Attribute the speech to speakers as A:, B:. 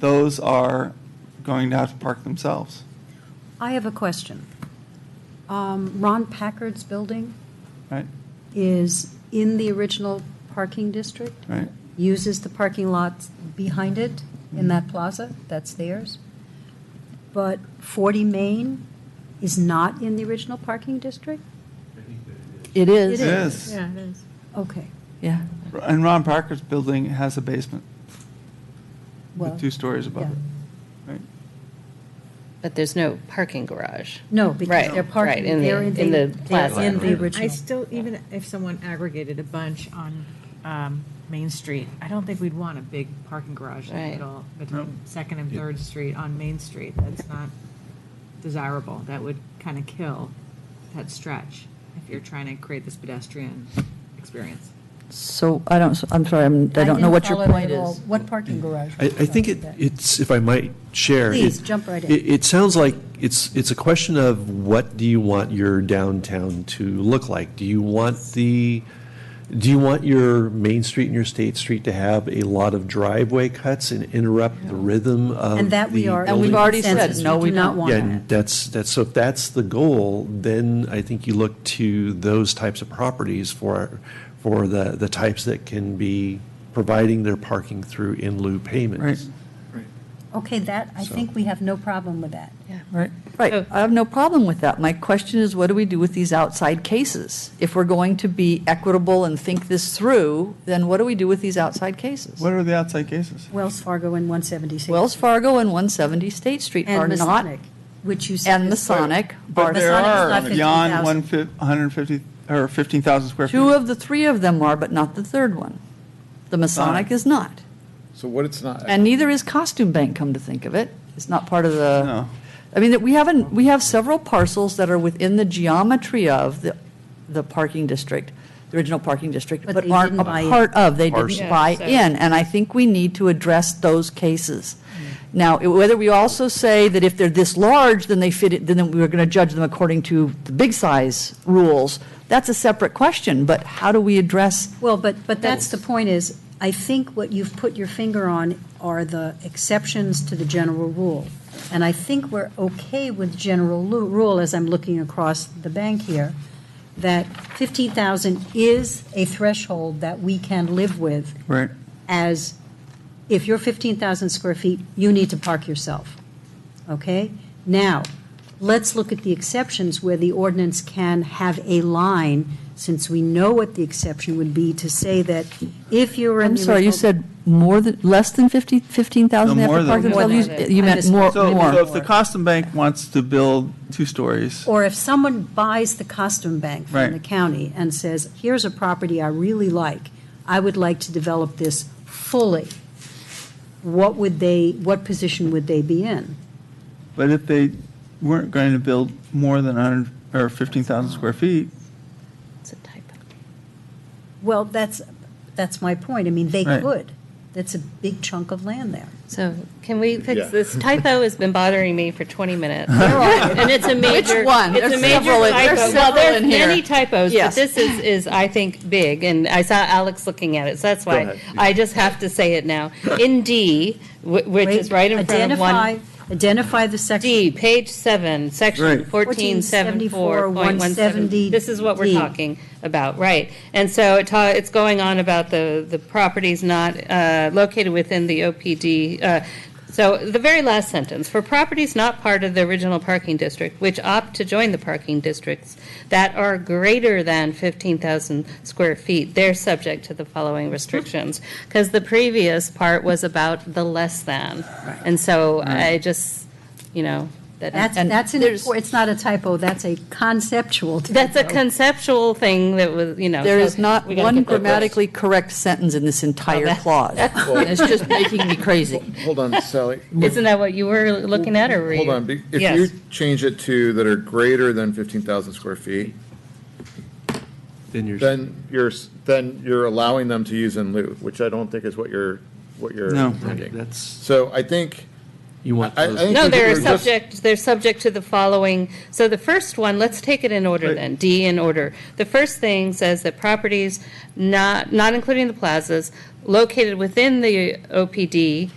A: those are going to have to park themselves.
B: I have a question. Um, Ron Packard's building
A: Right,
B: is in the original parking district,
A: right.
B: uses the parking lot behind it in that plaza, that's theirs. But 40 Main is not in the original parking district? It
C: It is.
A: It is.
D: Yeah, it is.
B: Okay,
C: Yeah.
A: And Ron Parker's building has a basement
B: well,
A: with two stories above
B: yeah.
A: it. Right.
E: But there's no parking garage.
B: no, because
E: Right,
B: they're parking,
E: right, in the-
B: they're in
E: in
B: the,
E: the
B: they're
E: plaza.
B: in the
D: I
B: original.
D: still, even if someone aggregated a bunch on um, Main Street, I don't think we'd want a big parking garage in the
E: Right.
D: middle between Second and Third Street on Main Street. That's not desirable. That would kind of kill that stretch if you're trying to create this pedestrian experience.
C: So I don't, I'm sorry, I'm- I don't know
B: didn't
C: what your
B: follow that
C: point
B: at all.
C: is.
B: What parking garage?
F: I, I think it, it's, if I might share. it-
B: Please, jump right in.
F: It, it sounds like it's, it's a question of what do you want your downtown to look like? Do you want the, do you want your Main Street and your State Street to have a lot of driveway cuts and interrupt the rhythm of
B: And that we
F: uh, the
B: are.
C: And we've
F: building?
C: already said,
B: Consensus,
C: no, we
B: do not
C: don't.
B: want
F: Yeah,
B: that.
F: and that's, that's, so if that's the goal, then I think you look to those types of properties for, for the, the types that can be providing their parking through in lieu payments.
B: Okay, that, I think we have no problem with that.
A: Right. Oh.
C: Right, I have no problem with that. My question is, what do we do with these outside cases? If we're going to be equitable and think this through, then what do we do with these outside cases?
A: What are the outside cases?
B: Wells Fargo and 176.
C: Wells Fargo and 170 State Street are
B: And
C: not,
B: Masonic, which you said.
C: and
B: is-
C: Masonic
A: But
C: are,
A: there
B: Masonic is
A: are beyond
B: not 15,000.
A: one fif- 150, or 15,000 square feet.
C: two of the three of them are, but not the third one. The Masonic is not.
G: So what it's not,
C: And neither is Costume Bank, come to think of it. It's not part of the.
A: No.
C: I mean, that we haven't, we have several parcels that are within the geometry of the, the parking district, the original parking district,
B: But
C: but
B: they
C: aren't
B: didn't
C: a
B: buy in.
C: part of, they
F: Parcel.
C: didn't buy
E: Yeah, so-
C: in. And I think we need to address those cases.
B: Mm.
C: Now, i- whether we also say that if they're this large, then they fit, it, then we're going to judge them according to the big size rules, that's a separate question, but how do we address?
B: Well, but, but that's the point is, I think what you've put your finger on are the exceptions to the general rule. And I think we're okay with general lu- rule, as I'm looking across the bank here, that 15,000 is a threshold that we can live with
A: Right.
B: as if you're 15,000 square feet, you need to park yourself. Okay? Now, let's look at the exceptions where the ordinance can have a line, since we know what the exception would be, to say that if you're in
C: I'm
B: the.
C: sorry, you
B: original-
C: said more than, less than 50, 15,000
A: No,
C: they have
A: more
C: to
A: than-
C: park
E: More
C: themselves?
E: than
C: You-
E: that.
C: You
B: I
C: meant more,
B: misspoke.
A: So,
C: more.
A: so if the Costum Bank wants to build two stories,
B: Or if someone buys the costume bank from
A: Right.
B: the county and says, here's a property I really like, I would like to develop this fully, what would they, what position would they be in?
A: but if they weren't going to build more than 100, or 15,000 square feet,
E: It's a typo.
B: Well, that's, that's my point. I mean, they
A: Right.
B: could. That's a big chunk of land there.
E: So can we fix
G: Yeah.
E: this typo? Has been bothering me for 20 minutes. And it's a major.
C: one?
E: It's a
C: There's
E: major
C: several in- there's
E: typo. Well,
C: several
E: there's
C: in here.
E: many typos, but
C: Yes.
E: this is, is, I think, big. And I saw Alex looking at it, so that's why
F: ahead.
E: I just have to say it now. In D, wh- which is right in front of
B: Identify-
E: one.
B: Identify the section.
E: D, page seven, section
A: Right.
E: fourteen seventy-four point one seventy. This is what we're
B: 1474.170.
E: talking about, right. And so it ta, it's going on about the, the properties not, uh, located within the OPD. uh, So the very last sentence, for properties not part of the original parking district, which opt to join the parking districts that are greater than fifteen thousand square feet, they're subject to the following restrictions. Because the previous part was about the less than. And so I just, you know, that.
B: That's,
C: And
B: that's, an
C: there's-
B: impor- it's not a typo, that's a conceptual.
E: That's a
B: typo.
E: conceptual thing that was, you know.
C: There
E: so
C: is not
E: we gotta
C: one
E: get that right.
C: grammatically correct sentence in this entire
E: that-
C: clause. And It's just making me crazy.
G: hold on, Sally.
E: Isn't that what you were looking at, or were
G: Hold
E: you-
G: on, be- if
E: Yes.
G: you change it to that are greater than fifteen thousand square feet,
F: Then you're.
G: then you're, s- then you're allowing them to use in lieu, which I don't think is what you're, what you're
A: No.
F: Right,
G: intending.
F: That's,
G: So I think,
F: you want
G: I- I
F: those-
G: think
E: No,
G: we're-
E: they're
G: we're just-
E: subject, they're subject to the following, so the first one, let's take it in order
A: Right.
E: then, D in order. The first thing says that properties not, not including the plazas, located within the OPD